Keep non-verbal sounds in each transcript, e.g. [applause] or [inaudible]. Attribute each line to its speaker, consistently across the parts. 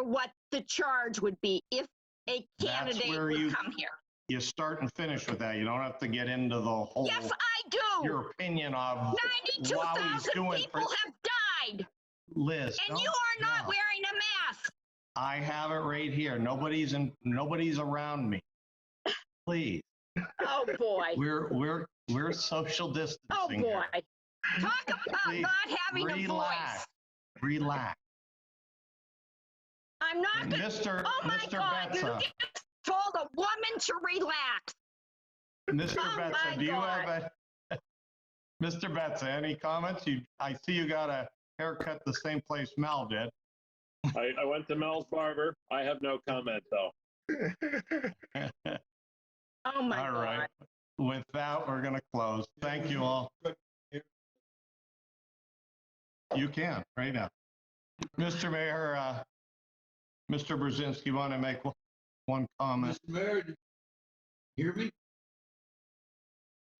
Speaker 1: what the charge would be if a
Speaker 2: That's
Speaker 1: candidate
Speaker 2: where
Speaker 1: would
Speaker 2: you-
Speaker 1: come here.
Speaker 2: You start and finish with that. You don't have to get into the whole,
Speaker 1: Yes, I do.
Speaker 2: your opinion of
Speaker 1: Ninety-two
Speaker 2: while he's
Speaker 1: thousand
Speaker 2: uh, doing
Speaker 1: people
Speaker 2: pres-
Speaker 1: have died
Speaker 2: Liz.
Speaker 1: and
Speaker 2: no,
Speaker 1: you are not
Speaker 2: no.
Speaker 1: wearing a mask.
Speaker 2: I have it right here. Nobody's in, nobody's around me.
Speaker 1: [laughs]
Speaker 2: Please,
Speaker 1: Oh, boy.
Speaker 2: we're, we're, we're social
Speaker 1: Oh,
Speaker 2: distancing. here.
Speaker 1: boy. Talk about
Speaker 2: Please,
Speaker 1: not having a voice.
Speaker 2: Relax, relax.
Speaker 1: I'm not
Speaker 2: And
Speaker 1: gonna,
Speaker 2: Mr.
Speaker 1: oh my
Speaker 2: Mr.
Speaker 1: God, you
Speaker 2: Betza, [laughs]
Speaker 1: just told a woman to relax.
Speaker 2: Mr.
Speaker 1: Oh my
Speaker 2: Betza, do you have
Speaker 1: God.
Speaker 2: a, [laughs] Mr. Betza, any comments? You, I see you got a haircut the same place Mel did.
Speaker 3: I, I went to Mel's barber. I have no comment though.
Speaker 1: Oh, my
Speaker 2: All
Speaker 1: God.
Speaker 2: right. With that, we're going to close. Thank you all. You can, right now. Mr. Mayor, uh, Mr. Brzezinski, want to make one- one comment?
Speaker 4: Mr. Mayor, did you hear me?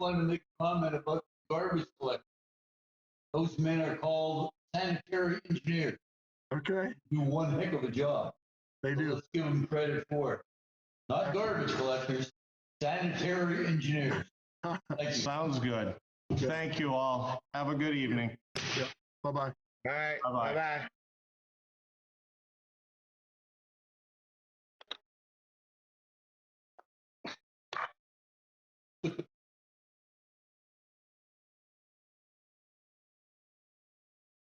Speaker 4: Want to make a comment about garbage collectors. Those men are called sanitary engineers,
Speaker 5: Okay,
Speaker 4: do one heck of a job.
Speaker 5: they
Speaker 4: So
Speaker 5: do.
Speaker 4: Let's give them credit for it. Not garbage collectors, sanitary engineers. Thank you.
Speaker 2: Sounds good. Thank you all. Have a good evening.
Speaker 5: Bye-bye.
Speaker 6: All right,
Speaker 2: Bye-bye.
Speaker 6: bye-bye.